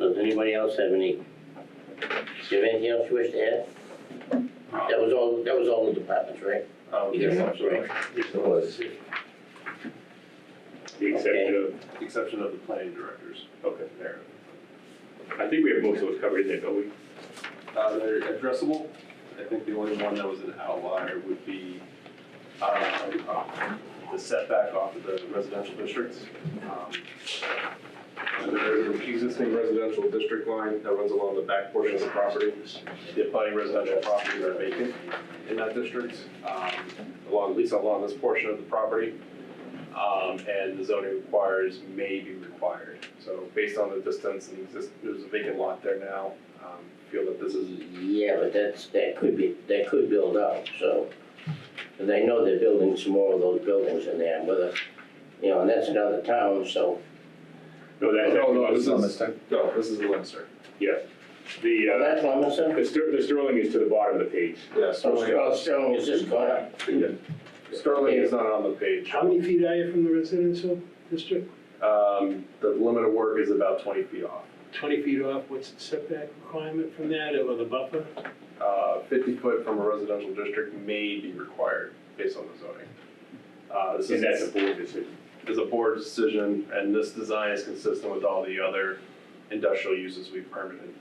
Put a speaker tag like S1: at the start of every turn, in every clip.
S1: Anybody else have any? Do you have anything else you wish to add? That was all, that was all the departments, right?
S2: Um,
S1: You
S2: yes,
S1: got
S2: I'm
S1: it, right?
S2: sorry.
S3: It was.
S2: The exception of, exception of the planning directors. Okay. There.
S4: I think we have most of those covered in there, don't we?
S2: Uh, they're addressable. I think the only one that was an outlier would be, uh, the setback off of the residential districts. Um, And there's an existing residential district line that runs along the back portion of the property. The abutting residential properties are vacant in that district, um, along, at least along this portion of the property. Um, and the zoning requires may be required. So based on the distance and exist, there's a vacant lot there now, um, feel that this is
S1: Yeah, but that's, that could be, that could build up, so. Cause I know they're building some more of those buildings in there, whether, you know, and that's another town, so.
S4: No, that,
S2: No, Oh, no,
S4: that,
S2: this is, no, this is Leinster.
S4: the,
S1: That's
S4: uh,
S1: Lemonster?
S4: the Ster- the Sterling is to the bottom of the page.
S2: Yeah,
S1: Oh, Sterling is this corner?
S2: Sterling is not on the page.
S5: How many feet are you from the residential district?
S2: Um, the limit of work is about twenty feet off.
S5: Twenty feet off, what's the setback requirement from that, or the buffer?
S2: Uh, fifty foot from a residential district may be required based on the zoning. Uh, this
S4: And that's a
S2: is,
S4: board decision.
S2: is a board decision, and this design is consistent with all the other industrial uses we've permitted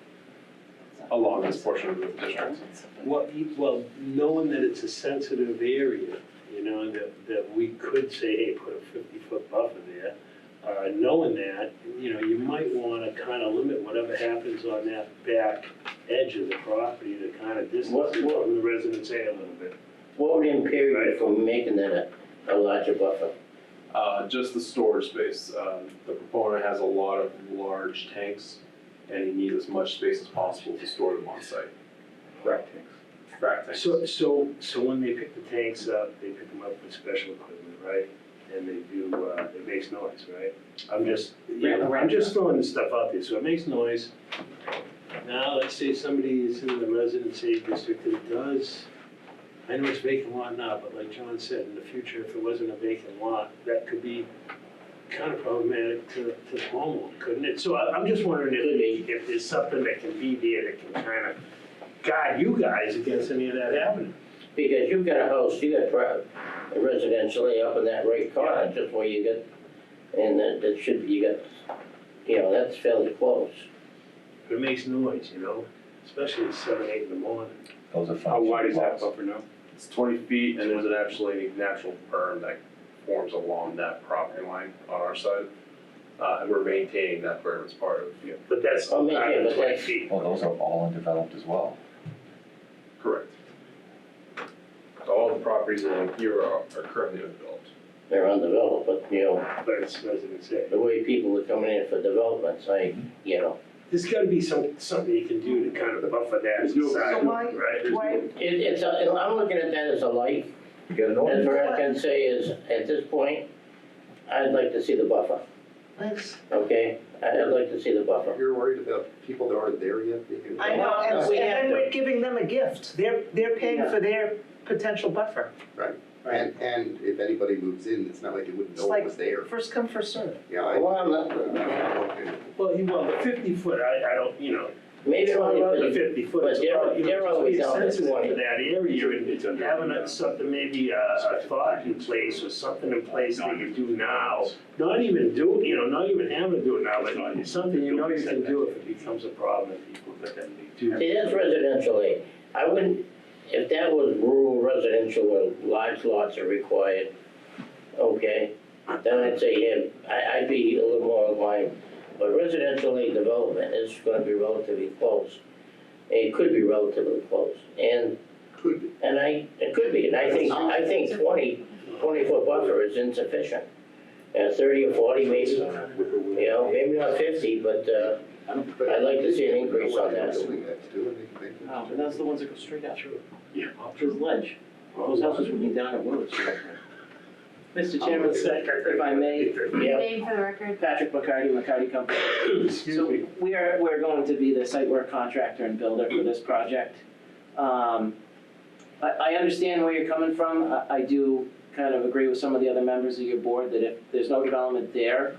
S2: along this portion of the district.
S5: Well, you- well, knowing that it's a sensitive area, you know, that, that we could say, hey, put a fifty-foot buffer there. Uh, knowing that, you know, you might wanna kinda limit whatever happens on that back edge of the property to kinda distance
S1: What-
S5: it
S1: what-
S5: from the residence area a little bit.
S1: What would impair you from making that a, a larger buffer?
S2: Uh, just the storage space. Um, the proponent has a lot of large tanks, and he needs as much space as possible to store them on site. Frac tanks. Frac tanks.
S5: So, so, so when they pick the tanks up, they pick them up with special equipment, right? And they do, uh, it makes noise, right? I'm just, yeah, I'm just throwing this stuff out there, so it makes noise. Now, let's say somebody is in the residency district that does, I know it's vacant lot now, but like John said, in the future, if it wasn't a vacant lot, that could be kind of problematic to, to the homeowner, couldn't it? So I, I'm just wondering if, if there's something that can be there that can kind of guide you guys against any of that happening.
S1: Because you've got a house, you got pri- residentially up in that right corner, just where you get, and that, that should, you got, you know, that's fairly close.
S5: It makes noise, you know, especially at seven, eight in the morning.
S3: Those are functional
S4: How wide is that
S3: lots.
S4: buffer now?
S2: It's twenty feet, and there's an actually natural berm that forms along that property line on our side. Uh, and we're maintaining that berm as part of, yeah.
S5: But that's
S1: Oh, man, yeah,
S5: out of
S1: but
S5: twenty
S1: that's-
S5: feet.
S3: Well, Oh, those are all undeveloped as well.
S2: Correct. All the properties along here are, are currently undeveloped.
S1: They're undeveloped, but, you know,
S5: But it's residents there.
S1: the way people are coming in for developments, I,
S3: Mm-hmm.
S1: you know,
S5: There's gotta be some, something you can do to kind of buffer that
S2: There's no-
S5: side,
S6: So why-
S5: right?
S6: Why,
S1: it, it's, a- I'm looking at that as a like,
S3: You get an
S1: as
S3: ordinance.
S1: far as I can say is, at this point, I'd like to see the buffer,
S6: let's,
S1: okay? I'd like to see the buffer.
S2: You're worried about people that aren't there yet?
S6: I know, and and then we're giving them a gift. They're, they're paying for their potential buffer.
S7: And, and if anybody moves in, it's not like they wouldn't
S6: It's
S7: know
S6: like-
S7: it was there.
S6: First come, first served.
S7: Yeah, I,
S1: Well, I'm not,
S7: I
S5: Well, you want the fifty foot, I, I don't, you know,
S1: maybe
S5: it's not
S1: only
S5: about
S1: for
S5: the
S1: the,
S5: fifty foot,
S1: but
S5: it's
S1: they're-
S5: about, you
S1: they're
S5: know, just
S1: always
S5: being
S1: down at
S5: sensitive
S1: twenty.
S5: to that area and
S4: It's under-
S5: having a- something, maybe a, a thought in place or something in place that you do now. Not even do, you know, not even having to do it now, but something you know you can do if it becomes a problem and people that then they do.
S1: See, that's residentially, eh? I wouldn't, if that was rural residential where large lots are required, okay, then I'd say, yeah, I, I'd be a little more inclined. But residentially development is gonna be relatively close, it could be relatively close, and,
S7: could be.
S1: and I, it could be, and I think, I think 20 20 foot buffer is insufficient. And thirty or forty maybe, you know, maybe not fifty, but, uh,
S7: But
S1: I'd like to see an increase on that.
S7: Building that too, and they- they-
S8: Oh, and that's the ones that go straight out.
S5: Yeah.
S8: There's ledge. Those houses would be down at Willard Street. Mr. Chairman, if I may,
S1: yeah.
S9: Um, Name for the record.
S8: Patrick McCarty, McCarty Company. So
S5: Excuse me.
S8: we are, we're going to be the site work contractor and builder for this project. Um, I, I understand where you're coming from. I, I do kind of agree with some of the other members of your board that if there's no development there,